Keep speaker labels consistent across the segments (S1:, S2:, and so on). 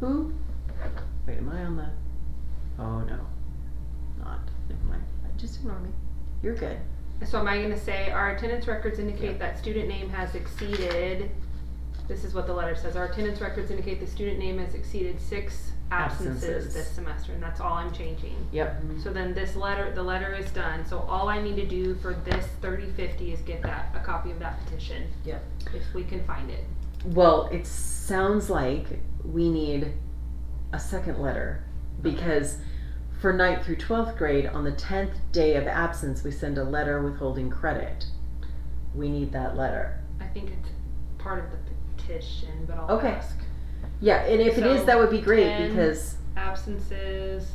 S1: Who? Wait, am I on the? Oh no, not. Never mind. Just ignore me. You're good.
S2: So am I gonna say, our attendance records indicate that student name has exceeded, this is what the letter says, our attendance records indicate the student name has exceeded six absences
S1: Absences.
S2: this semester, and that's all I'm changing.
S1: Yep.
S2: So then this letter, the letter is done, so all I need to do for this thirty fifty is get that, a copy of that petition.
S1: Yep.
S2: If we can find it.
S3: Well, it sounds like we need a second letter because for ninth through 12th grade, on the 10th day of absence, we send a letter withholding credit. We need that letter.
S2: I think it's part of the petition, but I'll
S3: Okay.
S2: ask.
S3: Yeah, and if it is,
S2: So,
S3: that would be great
S2: 10.
S3: because.
S2: Absences,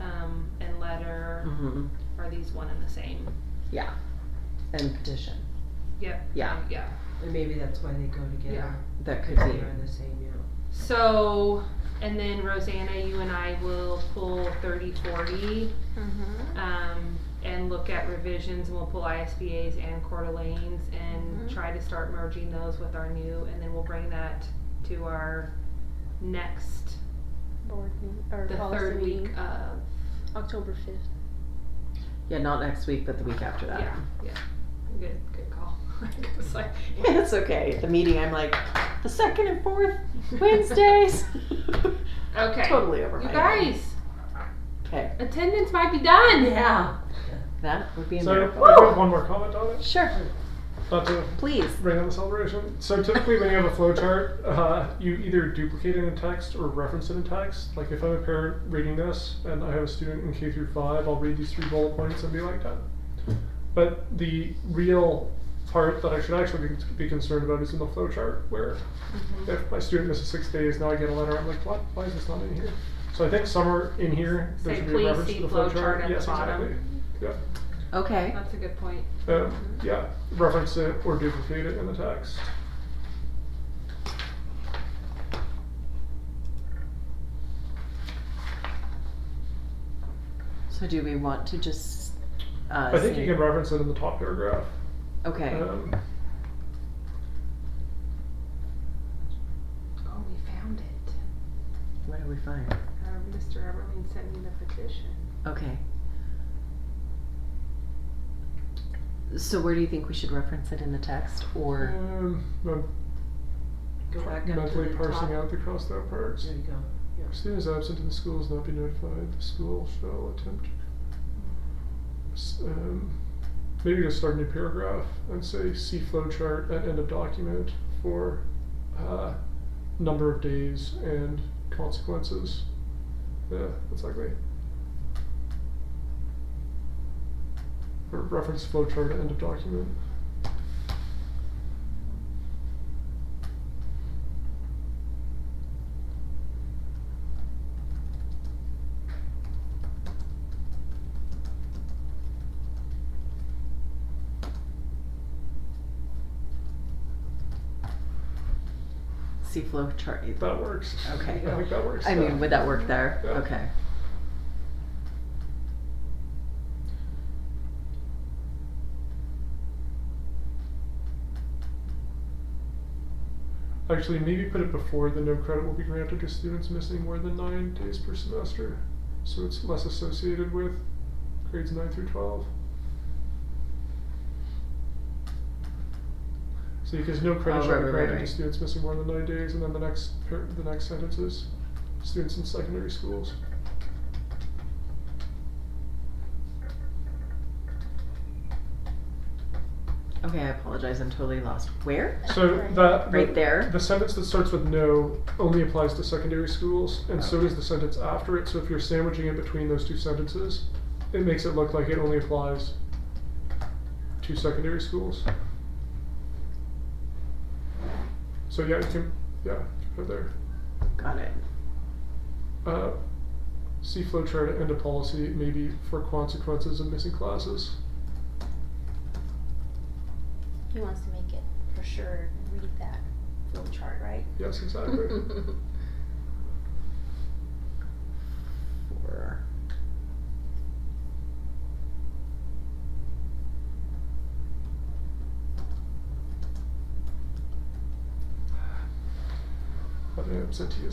S2: um, and letter,
S3: Mhm.
S2: are these one and the same?
S3: yeah. And petition.
S2: Yep.
S3: Yeah,
S2: Yeah.
S4: And maybe that's why they go together.
S3: that could
S4: Because
S3: be.
S4: they are the same, yeah.
S2: So, and then Rosanna, you and I will pull thirty forty,
S1: Mm-hmm.
S2: um, and look at revisions, and we'll pull ISBA's and Coeur d'Alene's and
S1: Mhm.
S2: try to start merging those with our new, and then we'll bring that to our next,
S1: Board meeting or
S2: the
S1: policy
S2: third week
S1: meeting,
S2: of,
S1: October fifth.
S3: Yeah, not next week, but the week after that.
S2: yeah, yeah, good, good call. I was like,
S3: It's okay. At the meeting, I'm like, the second and fourth Wednesdays.
S2: Okay, you
S3: totally over my head.
S2: guys,
S3: Okay,
S2: attendance might be done.
S4: Yeah.
S3: that would be a
S5: So,
S3: miracle.
S5: I've got one more comment on it,
S3: Sure,
S5: not to
S3: please.
S5: bring on the celebration. So typically when you have a flow chart, uh, you either duplicate it in text or reference it in text. Like if I'm a parent reading this and I have a student in K through five, I'll read these three bullet points and be like done. But the real part that I should actually be- be concerned about is in the flow chart where
S2: Mm-hmm.
S5: if my student misses six days, now I get a letter, I'm like, what, why is this not in here? So I think somewhere in here, there
S2: Say,
S5: should be
S2: "Please
S5: a reference
S2: see
S5: to the
S2: flow
S5: flow
S2: chart at
S5: chart,
S2: the
S5: yes,
S2: bottom."
S5: exactly, yeah.
S3: Okay.
S2: That's a good point.
S5: Um, yeah, reference it or duplicate it in the text.
S3: So do we want to just? Uh,
S5: I think
S3: say-
S5: you can reference it in the top paragraph.
S3: Okay.
S5: Um,
S2: Oh, we found it.
S3: what do we find?
S2: Uh, Mr. Everling sent me the petition.
S3: Okay. So where do you think we should reference it in the text, or
S5: um, I'm
S4: Mm, Go back up to
S5: mentally
S4: the top.
S5: parsing out the crossed out parts.
S4: There you go.
S5: Student is absent and the school is not be notified. The school shall attempt. s- Um, maybe just start a new paragraph and say see flow chart at end of document for uh, number of days and consequences. Yeah, that's ugly. Or reference flow chart at end of document.
S3: see flow chart?
S5: That works.
S3: Okay.
S5: Uh, I think that works.
S3: I
S5: yeah.
S3: mean, would that work there?
S5: Yeah.
S3: Okay.
S5: Actually, maybe put it before the no credit will be granted to students missing more than nine days per semester. So it's less associated with grades nine through twelve. So because no
S3: Oh,
S5: credit
S3: right,
S5: shall
S3: right,
S5: be
S3: right,
S5: granted
S3: right.
S5: to students missing more than nine days, and then the next par- the next sentence is students in secondary schools.
S3: Okay. I apologize. I'm totally lost. Where?
S5: So
S1: Right.
S5: that
S3: Right
S5: that-
S3: there.
S5: The sentence that starts with no only applies to secondary schools, and so
S3: Okay.
S5: does the sentence after it. So if you're sandwiching it between those two sentences, it makes it look like it only applies to secondary schools. So yeah, you can, yeah, right there.
S3: Got it.
S5: Uh, see flow chart and a policy maybe for consequences of missing classes.
S6: He wants to make it for sure read that flow chart, right?
S5: Yes, exactly.
S3: Or
S5: I think I'm sent to you.